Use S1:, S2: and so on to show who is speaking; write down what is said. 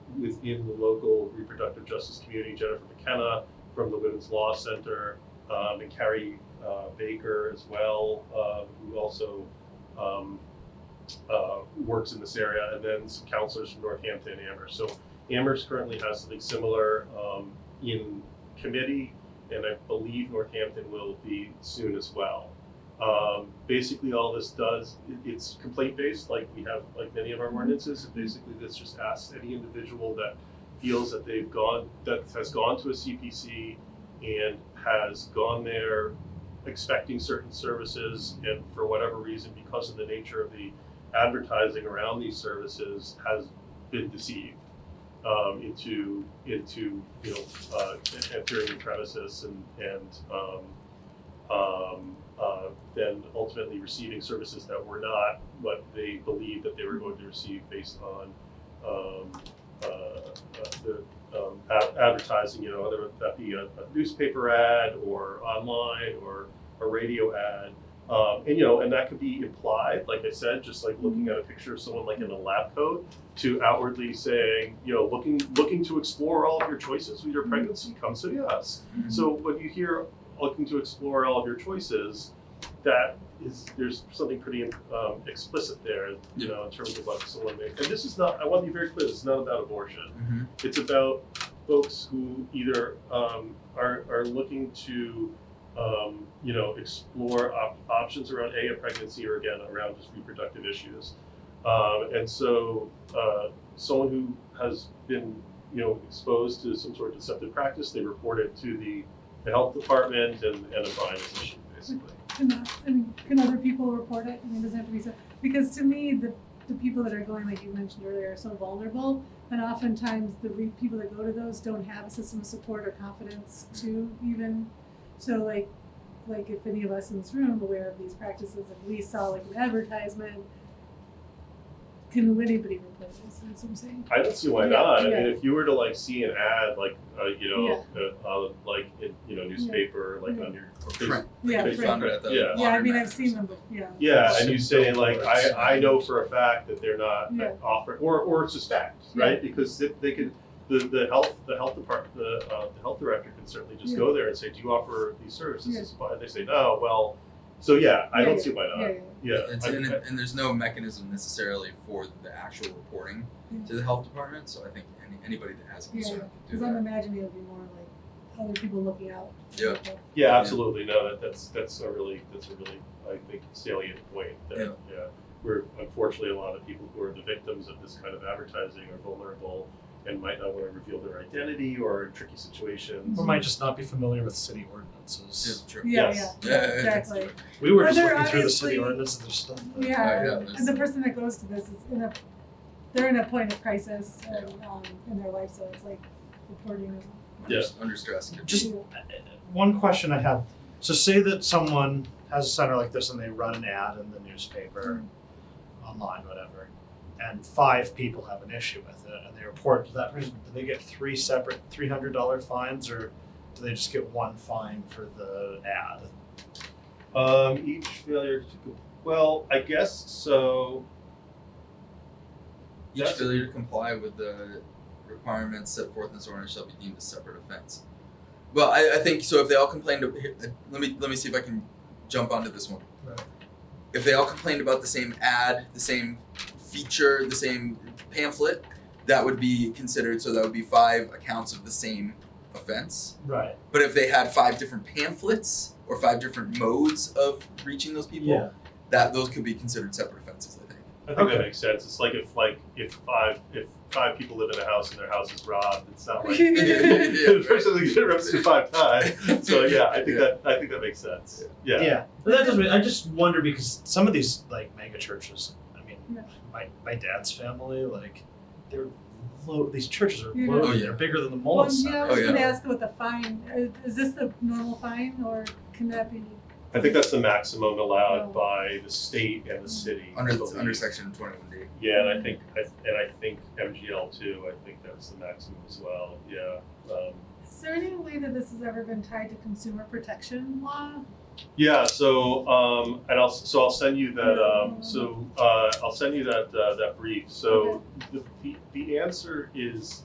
S1: in the local reproductive justice community, Jennifer McKenna from the Women's Law Center, um, and Carrie uh, Baker as well, um, who also um, uh, works in this area, and then some counselors from Northampton and Amherst. So Amherst currently has something similar um, in committee, and I believe Northampton will be soon as well. Um, basically, all this does it, it's complaint based, like we have like many of our ordinances. And basically, this just asks any individual that feels that they've gone that has gone to a CPC and has gone there expecting certain services, and for whatever reason, because of the nature of the advertising around these services, has been deceived um, into into you know uh, entering the premises and and um, um, uh, then ultimately receiving services that were not what they believed that they were going to receive based on um, uh, uh, the um, ad- advertising, you know, whether that be a, a newspaper ad or online or a radio ad. Um, and you know, and that could be implied, like I said, just like looking at a picture of someone like in a lab coat to outwardly saying, you know, looking looking to explore all of your choices with your pregnancy, come see us. So when you hear looking to explore all of your choices, that is there's something pretty um, explicit there, you
S2: Yeah.
S1: know, in terms of what someone may. And this is not. I want to be very clear. This is not about abortion.
S3: Mm-hmm.
S2: Mhm.
S1: It's about folks who either um, are are looking to. Um, you know, explore op- options around a, a pregnancy or again around just reproductive issues, um, and so uh, someone who has been you know exposed to some sort of deceptive practice, they report it to the, the health department and, and a fine is issued, basically.
S3: Can, the- I mean, can other people report it? I mean, it doesn't have to be so, because to me, the, the people that are going, like you mentioned earlier, are so vulnerable. And oftentimes the re- people that go to those don't have a system of support or confidence to even, so like, like if any of us in this room aware of these practices, if we saw like an advertisement, can anybody report this? That's what I'm saying.
S1: I don't see why
S3: Yeah,
S1: not. I
S3: yeah.
S1: mean, if you were to like see an ad, like uh, you know, uh, uh, like in, you know, newspaper, like
S3: Yeah.
S1: on your or
S2: Right.
S1: Facebook.
S3: Yeah,
S2: They
S1: Based
S3: right.
S1: on-
S2: found it at the
S1: Yeah.
S3: Yeah, I
S2: laundromat
S3: mean,
S2: or
S3: I've seen them,
S2: something.
S3: but, yeah.
S1: Yeah, and you say like
S2: Billboards.
S1: I, I know for a fact that they're not
S3: Yeah.
S1: offering or, or suspect
S3: Yeah.
S1: right because they, they could the, the health the health department the, uh, the health director can certainly just
S3: Yeah.
S1: go there and say do you offer these services
S3: Yeah.
S1: As far- they say no well so yeah I
S3: Yeah,
S1: don't
S3: yeah.
S1: see why
S3: Yeah,
S1: not
S3: yeah,
S1: yeah,
S2: It's,
S1: I-
S2: and,
S1: I-
S2: it- and there's no mechanism necessarily for the actual reporting
S3: Yeah.
S2: to the health department, so I think any, anybody that has a
S3: Mm. yeah,
S2: concern can
S3: because
S2: do
S3: I'm
S2: that.
S3: imagining it'll be more like other people looking out.
S2: Yeah.
S1: Yeah,
S2: Yeah.
S1: absolutely. No, that, that's that's a really that's a really I think salient point. That,
S2: Yeah.
S1: Where unfortunately a lot of people who are the victims of this kind of advertising are vulnerable and might not want to reveal their identity or in tricky situations.
S4: Or might just not be familiar with city ordinances.
S2: Yeah, true.
S3: Yeah,
S1: Yes.
S3: yeah,
S2: Yeah, yeah, yeah.
S3: exactly.
S4: We were
S3: Are
S4: just
S3: there
S4: looking through the city
S3: obviously-
S4: ordinance and there's stuff. that-
S2: yeah,
S3: Yeah,
S2: that's-
S3: and the person that goes to this is in a, they're in a point of crisis and, um, in their life, so it's like reporting. is-
S2: Under,
S1: Yeah.
S2: under stress. can be-
S4: Just- One question I had, so say that someone has a center like this and they run an ad in the newspaper,
S3: Hmm.
S4: online, whatever, and five people have an issue with it and they report to that person, do they get three separate three hundred dollar fines or do they just get one fine for the ad?
S1: Um, each failure to com- well, I guess so.
S2: Each
S1: That's-
S2: failure to comply with the requirements set forth in this ordinance shall be deemed a separate offense. Well, I, I think so. If they all complained, of, here, uh, let me let me see if I can jump onto this one.
S4: Right.
S2: If they all complained about the same ad, the same feature, the same pamphlet, that would be considered. So that would be five accounts of the same offense.
S4: Right.
S2: But if they had five different pamphlets or five different modes of reaching those people,
S4: Yeah.
S2: that those could be considered separate offenses. I think.
S1: I think that makes sense. It's like if like if five if five people live in a house and their house is robbed, it's not like the
S2: right.
S1: person that gets arrested five times. So yeah, I think that I think that makes sense.
S4: Yeah. But that doesn't. I just wonder because some of these like mega churches. I mean,
S3: Yeah.
S4: my my dad's family like they're low. These churches are
S3: Yeah.
S4: low.
S2: Oh, yeah.
S4: They're bigger than the
S3: Mm-hmm. Well,
S4: Mullen
S3: yeah, I
S4: Center.
S3: was
S2: Oh,
S3: gonna
S2: yeah.
S3: ask about the fine, Uh, is this the normal fine or can that be?
S1: I think that's the maximum allowed
S3: Oh.
S1: by the state and the city. I
S2: Under
S1: believe.
S2: under section twenty one D.
S1: Yeah, and I think, I and I think MGL too, I think that's the maximum as well, yeah. Um,
S3: Is there any way that this has ever been tied to consumer protection law?
S1: Yeah, so, um, and I'll, so I'll send you that, um, so, uh, I'll send you that, uh, that brief. So the, the- the answer is